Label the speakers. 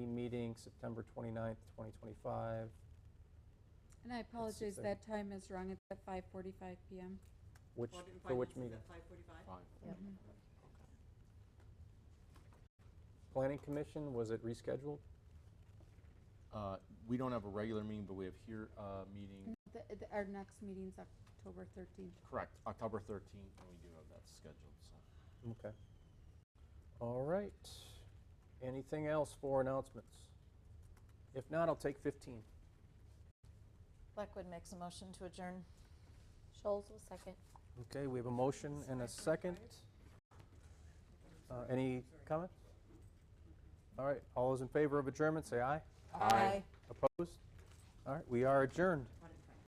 Speaker 1: meeting, September 29th, 2025.
Speaker 2: And I apologize, that time is wrong, it's at 5:45 PM.
Speaker 1: Which,
Speaker 3: Audit and
Speaker 1: for which
Speaker 3: Finance is
Speaker 1: meeting?
Speaker 3: at 5:45?
Speaker 4: Fine.
Speaker 1: Planning Commission, was it rescheduled?
Speaker 4: Uh, We don't have a regular meeting, but we have here a meeting,
Speaker 2: The- the- Our next meeting's October 13th.
Speaker 4: correct, October 13th, and we do have that scheduled, so.
Speaker 1: Okay. All right. Anything else for announcements? If not, I'll take 15.
Speaker 5: Blackwood makes a motion to adjourn.
Speaker 6: Scholes will second.
Speaker 1: Okay, we have a motion and a second. Uh, Any comment? All right, all those in favor of adjournment, say aye.
Speaker 5: Aye.
Speaker 1: Opposed? All right, we are adjourned.